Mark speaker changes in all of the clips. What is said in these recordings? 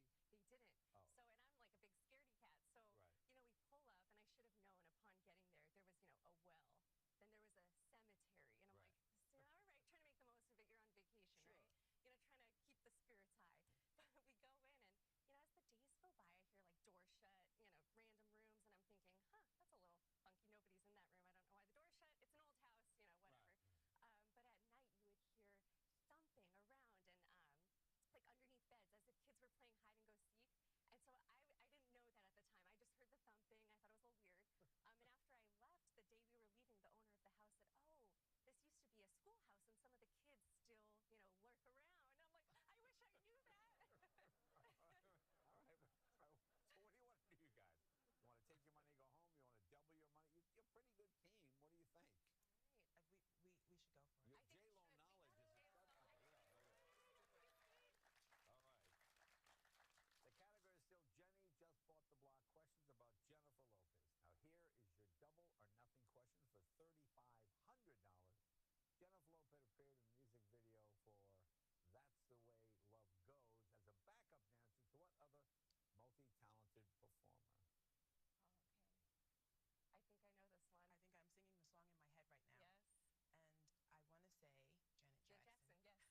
Speaker 1: Um, um, were playing hide and go seek. And so I, I didn't know that at the time. I just heard the thumping. I thought it was a little weird. Um, and after I left, the day we were leaving, the owner of the house said, Oh, this used to be a schoolhouse Um, and some of the kids still, you
Speaker 2: Right. Uh, we, we, we should go for it.
Speaker 1: know, lurk around. I'm like, I wish I knew that. I think we should. We should.
Speaker 3: All right. So, so what do you want to do, you guys? You want to take your money, go home? You want to double your money? You, you're a pretty good team. What do you think? Your J Lo knowledge is exceptional. Yeah, look at it. All right. The category is still Jenny just bought the block. Questions about Jennifer Lopez. Now here is your double or nothing question for thirty-five hundred dollars. Jennifer Lopez appeared in the music video for "That's the Way Love Goes" as a backup dancer to what other multi-talented performer?
Speaker 1: Oh, man.
Speaker 4: Uh,
Speaker 1: I think I know this one.
Speaker 2: I think I'm singing the song in my head right now. And I want to say
Speaker 1: Yes.
Speaker 2: Janet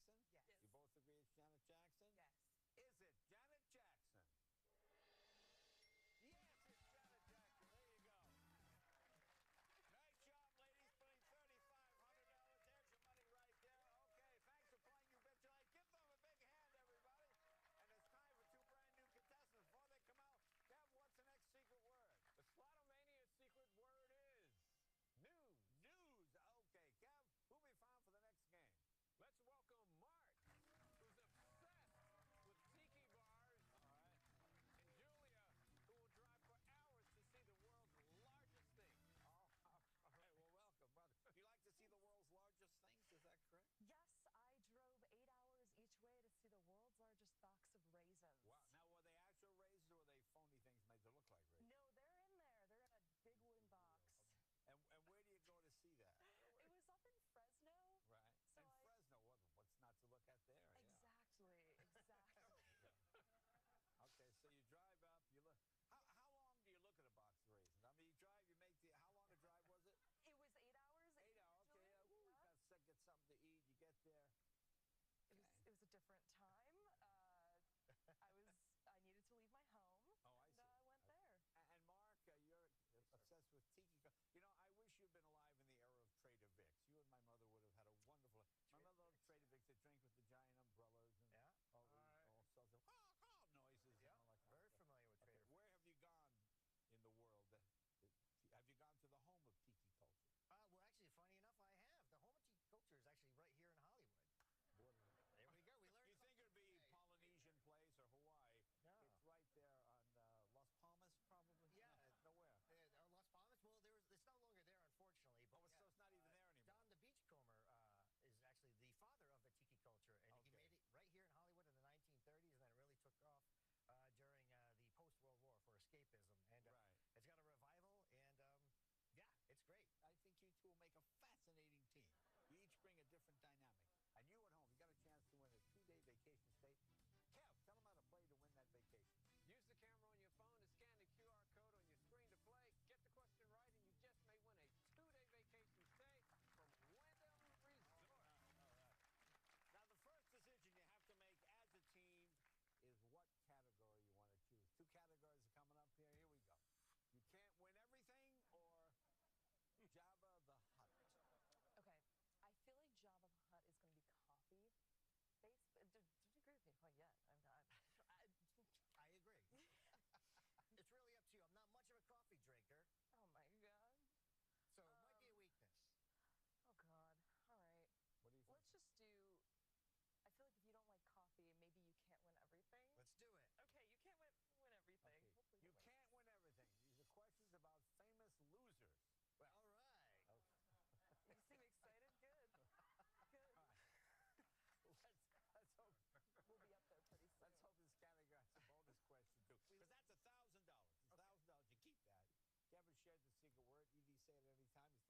Speaker 2: Jackson.
Speaker 1: Jackson, yes. Uh, yes, it is.
Speaker 3: So you got Janet Jackson.
Speaker 2: Yes.
Speaker 1: Yes.
Speaker 3: You both agree it's Janet Jackson.
Speaker 2: Yes.
Speaker 3: Is it Janet Jackson? Yes, it's Janet Jackson. There you go. Nice job, ladies. Putting $3,500. There's your money right there. Okay, thanks for playing You Bet Your Life. Give them a big hand, everybody. And it's time for two brand new contestants. Before they come out, Deb, what's the next secret
Speaker 5: The Slotomania secret word is. Let's welcome Mark, who's obsessed with tiki bars. All right. And Julia, who will drive for hours to see the world's largest thing.
Speaker 3: word? News. News. Okay, Kev, who'll be found for the next game? Oh, all right. Well, welcome, brother. You like to see the world's largest things? Is that correct?
Speaker 4: Yes, I drove eight hours each way to see
Speaker 3: Wow. Now, were they actual raisins or were they phony things made to look like raisins? And, and where do you go to see that? Right. in Fresno, what, what's not to look at there? yeah. Okay, so you drive up, you look. How, how long do you look at a box of raisins?
Speaker 4: the world's largest box of raisins. No, they're in there. They're in a big wooden box. It was up in Fresno. So I- Exactly, exactly.
Speaker 3: I mean, you drive, you make the. How long a drive was it?
Speaker 4: it was eight hours.
Speaker 3: Eight hours. Okay,
Speaker 4: individually,
Speaker 3: yeah. Ooh, you
Speaker 4: yeah.
Speaker 3: got to get something to eat. You get there. Oh,
Speaker 4: It was, it was a different time.
Speaker 5: Use the camera on your phone to scan the QR code on your screen to play. Get the question right, and you just may win a two-day vacation stay from Wyndham Resort.
Speaker 3: Oh, I see. Okay. A- And Mark, uh, you're obsessed with tiki. co- You know, I wish you'd been alive in the era of Trader Vic's. You and my mother would have had a wonderful. My mother loved Trader Vic's. They drink with the giant umbrellas and all these all sorts of noises. and all that kind of stuff. Okay, where have you gone in the world? That, that- have you gone to the home of tiki culture? You think it'd be Polynesian place or Hawaii? It's right there on uh, Las Palmas, probably. No, nowhere. Oh, it's- so it's not even there anymore. Okay. Right. I think you two will make a fascinating team. You each bring a different dynamic. And you at home, you got a chance to win a two-day vacation stay. Kev, tell them how to play to win that vacation. Now, the first decision you have to make as a team is what category you want to choose. Two categories are coming up here. Here we go. You can't win everything or Jabba the Hutt.
Speaker 6: Yeah, all right. Yeah, very familiar with Trader. Uh, well, actually, funny enough, I have. The home of Tiki culture is actually right here in Hollywood. There we go. We learned. something today. No. Yeah. Uh, uh, Las Palmas. Well, there was. It's no longer there, unfortunately. But Don the Beachcomber uh, is actually the father of the tiki culture, and he made it right here in Hollywood in the 1930s, and then it really took off. Uh, during uh, the post-World War for escapism, and uh, it's got a revival, and um, yeah, it's great. I agree. it's really up to you. I'm
Speaker 4: Uh, I was I needed to leave my home. and, Uh, I went there. Okay. I feel like Java the Hutt is going to be coffee. Based, uh, did, did you agree with me? Well, yeah, I'm not. I-
Speaker 6: not
Speaker 4: Um,
Speaker 6: much of a coffee drinker, so it
Speaker 4: oh my god.
Speaker 6: might be a weakness.
Speaker 4: Oh god. All right.
Speaker 3: What do you think?
Speaker 4: Let's just do. I feel like if you
Speaker 6: Let's do it.
Speaker 4: don't like coffee, maybe you can't win everything. Okay, you can't win, win everything.
Speaker 3: Okay.
Speaker 4: Hopefully
Speaker 3: You
Speaker 4: win.
Speaker 3: can't win everything. These are questions about famous losers.
Speaker 6: All right.
Speaker 4: You seem excited. Good. Good.
Speaker 3: Let's, let's hope
Speaker 4: We'll be up there pretty soon.
Speaker 3: Let's hope this category has a bonus question too, because that's a thousand dollars. A thousand dollars, you keep that. Kevin shared the secret word. ED E say it any time. He's